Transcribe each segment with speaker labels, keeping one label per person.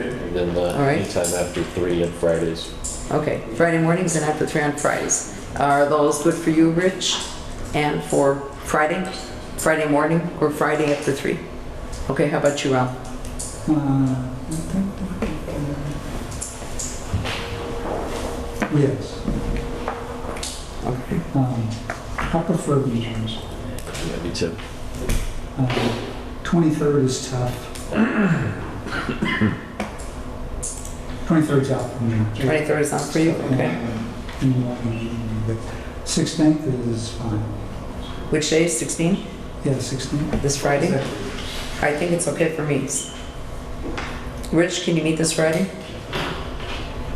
Speaker 1: and then uh,
Speaker 2: All right.
Speaker 1: anytime after three on Fridays.
Speaker 2: Okay, Friday mornings and after three on Fridays. Are those good for you, Rich? And for Friday, Friday morning or Friday after three? Okay, how about you, Rob?
Speaker 3: Uh, Yes,
Speaker 2: Okay.
Speaker 3: um, I prefer meetings.
Speaker 1: Yeah, me too.
Speaker 3: Um, 23rd is tough. 23rd's out for me.
Speaker 2: Twenty-third is not for you? Okay.
Speaker 3: In the morning, but 16th is fine.
Speaker 2: Which day is sixteen?
Speaker 3: Yeah, 16th.
Speaker 2: This Friday? I think it's okay for me. Rich, can you meet this Friday?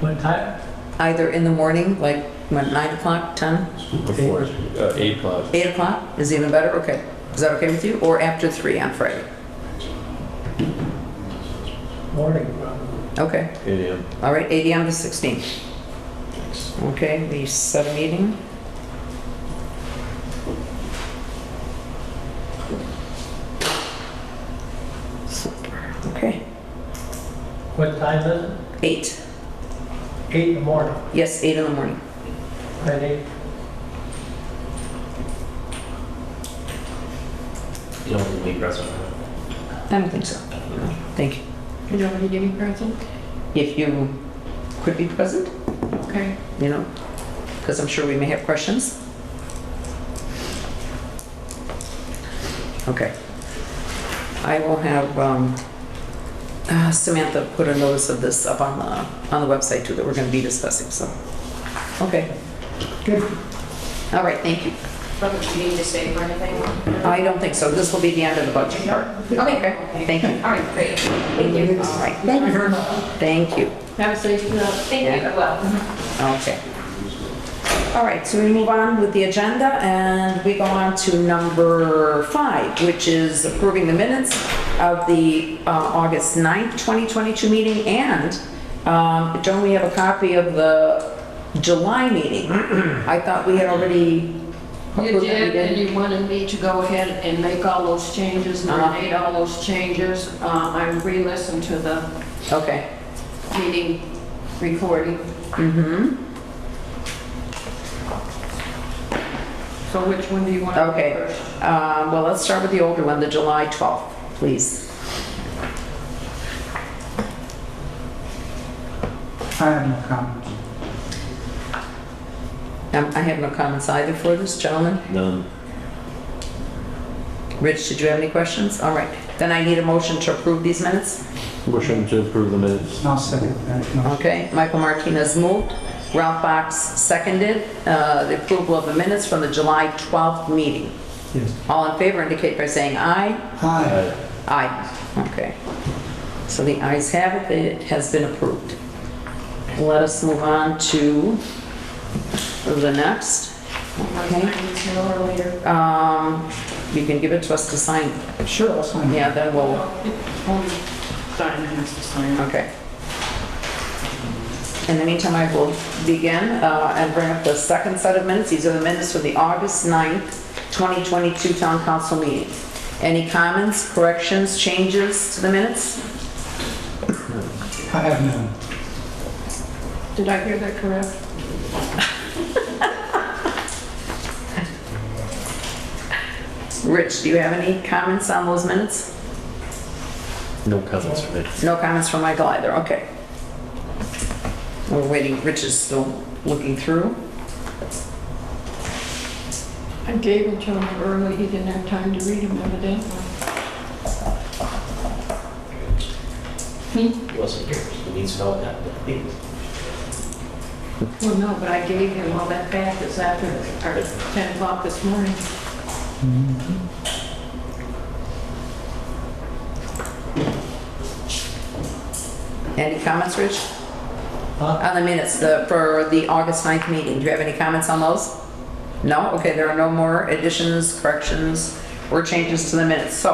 Speaker 4: What time?
Speaker 2: Either in the morning, like, what, nine o'clock, ten?
Speaker 1: Before, uh, eight o'clock.
Speaker 2: Eight o'clock is even better, okay. Is that okay with you? Or after three on Friday?
Speaker 4: Morning, probably.
Speaker 2: Okay.
Speaker 1: Eight AM.
Speaker 2: All right, 8 AM to 16. Okay, we set a meeting. Okay,
Speaker 4: What time is it?
Speaker 2: 8,
Speaker 4: Eight in the morning,
Speaker 2: yes, 8 in the morning.
Speaker 4: Friday.
Speaker 5: You don't leave restaurant.
Speaker 2: I don't think so. Thank you.
Speaker 6: You don't want to give me present?
Speaker 2: If you could be present,
Speaker 6: Okay.
Speaker 2: you know, because I'm sure we may have questions. Okay. I will have um, uh, Samantha put a notice of this up on the, on the website too, that we're going to be discussing, so. Okay,
Speaker 3: Good.
Speaker 2: all right, thank you.
Speaker 6: Robert, do you need to stay for anything?
Speaker 2: I don't think so, this will be the end of the budget part.
Speaker 6: Okay.
Speaker 2: Thank you.
Speaker 6: All right, great. Thank you.
Speaker 2: All right, thank you. Thank you.
Speaker 6: Have a safe night. Thank you. Well.
Speaker 2: Okay. All right, so we move on with the agenda and we go on to number five, which is approving the minutes of the uh, August 9th, 2022 meeting. And um, don't we have a copy of the July meeting? I thought we had already
Speaker 7: You
Speaker 2: approved that we
Speaker 7: did, and
Speaker 2: did.
Speaker 7: you wanted me to go ahead and make all those changes, and
Speaker 2: Uh-huh.
Speaker 7: I made all those changes. Uh, I re-listened to the
Speaker 2: Okay.
Speaker 7: meeting recording.
Speaker 2: Mm-hmm.
Speaker 7: So which one do you want to
Speaker 2: Okay.
Speaker 7: do first?
Speaker 2: Um, Well, let's start with the older one, the July 12th, please.
Speaker 3: I have no comments.
Speaker 2: Um, I have no comments either for this gentleman.
Speaker 1: None.
Speaker 2: Rich, did you have any questions? All right, then I need a motion to approve these minutes.
Speaker 1: Motion to approve the minutes.
Speaker 3: I'll second that. No.
Speaker 2: Okay, Michael Martinez moved, Ralph Box seconded, uh, the approval of the minutes from the July 12th meeting.
Speaker 3: Yes.
Speaker 2: All in favor indicate by saying aye.
Speaker 3: Hi.
Speaker 2: Aye. Okay. So the ayes have it, it has been approved. Let us move on to the next. Okay.
Speaker 7: Sooner or later.
Speaker 2: Um, You can give it to us to sign.
Speaker 3: Sure, I'll sign it.
Speaker 2: Yeah, then we'll
Speaker 7: Only sign has to sign.
Speaker 2: Okay. In the meantime, I will begin uh, and bring up the second set of minutes. These are the minutes for the August 9th, 2022 Town Council meeting. Any comments, corrections, changes to the minutes?
Speaker 3: I have none.
Speaker 7: Did I hear that correct?
Speaker 2: Rich, do you have any comments on those minutes?
Speaker 1: No comments from me.
Speaker 2: No comments from Michael either, okay. We're waiting, Rich is still looking through.
Speaker 7: I gave it to him early, he didn't have time to read them evidently. Hmm?
Speaker 5: He wasn't here, so he needs to know what happened.
Speaker 7: Well, no, but I gave him all that back this after, or 10 o'clock this morning.
Speaker 2: Any comments, Rich?
Speaker 4: Huh?
Speaker 2: On the minutes, the, for the August 9th meeting, do you have any comments on those? No? Okay, there are no more additions, corrections, or changes to the minutes. So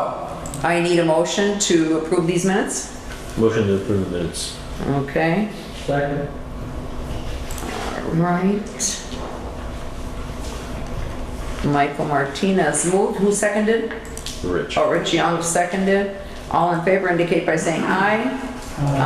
Speaker 2: I need a motion to approve these minutes.
Speaker 1: Motion to approve the minutes.
Speaker 2: Okay,
Speaker 4: Second.
Speaker 2: right. Michael Martinez moved. Who seconded?
Speaker 1: Rich.
Speaker 2: Oh, Rich Young seconded. All in favor indicate by saying aye.